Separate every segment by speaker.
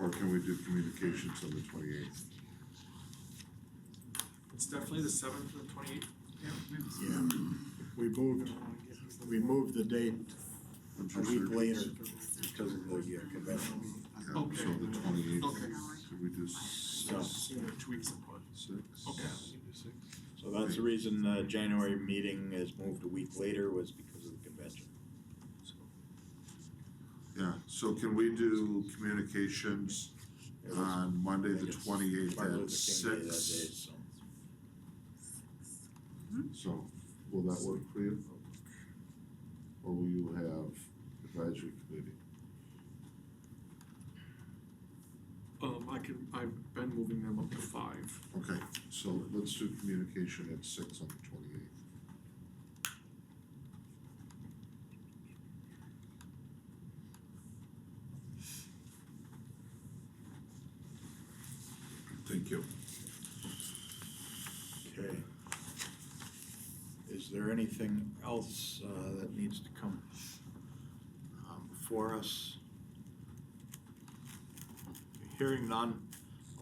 Speaker 1: Or can we do communications on the twenty-eighth?
Speaker 2: It's definitely the seventh and the twenty-eighth.
Speaker 3: Yeah, Um, we moved, we moved the date a week later because of the uh, convention.
Speaker 1: Yeah,
Speaker 2: Okay.
Speaker 1: so the twenty-eighth,
Speaker 2: Okay.
Speaker 1: could we do six,
Speaker 2: Two weeks apart.
Speaker 1: six?
Speaker 2: Okay.
Speaker 3: So that's the reason the January meeting is moved a week later was because of the convention.
Speaker 1: Yeah, so can we do communications
Speaker 3: It was-
Speaker 1: on Uh, Monday,
Speaker 3: I
Speaker 1: the
Speaker 3: think it's
Speaker 1: twenty-eighth
Speaker 3: Martin
Speaker 1: at
Speaker 3: Luther King Day that day,
Speaker 1: six?
Speaker 3: so.
Speaker 1: So, will that work for you? Or will you have advisory committee?
Speaker 2: Um, I can, I've been moving them up to five.
Speaker 1: Okay, so let's do communication at six on the twenty-eighth. Thank you.
Speaker 3: Okay. Is there anything else uh, that needs to come um, before us? Hearing none,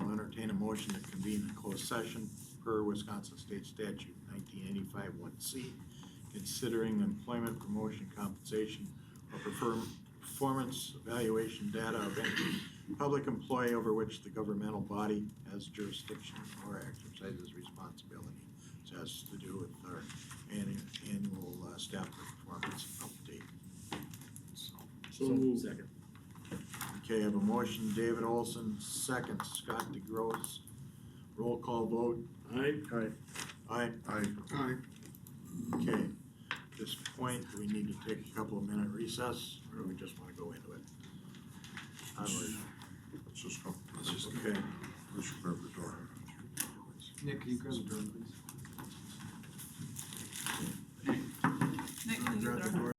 Speaker 3: I'll entertain a motion to convene a closed session per Wisconsin State Statute nineteen eighty-five one C, considering employment promotion compensation or perform- performance evaluation data of any public employee over which the governmental body has jurisdiction or exercises responsibility. This has to do with our annu- annual uh, staff performance update. So.
Speaker 2: So moved.
Speaker 3: Okay, I have a motion, David Olson, second, Scott DeGros. Roll call vote,
Speaker 2: Aye. Aye.
Speaker 3: aye,
Speaker 1: I,
Speaker 2: Aye.
Speaker 3: okay. At this point, do we need to take a couple of minute recess, or do we just wanna go into it? I would-
Speaker 1: let's just go, let's just,
Speaker 3: Okay,
Speaker 1: let's grab the door.
Speaker 4: Nick, can you grab the door, please?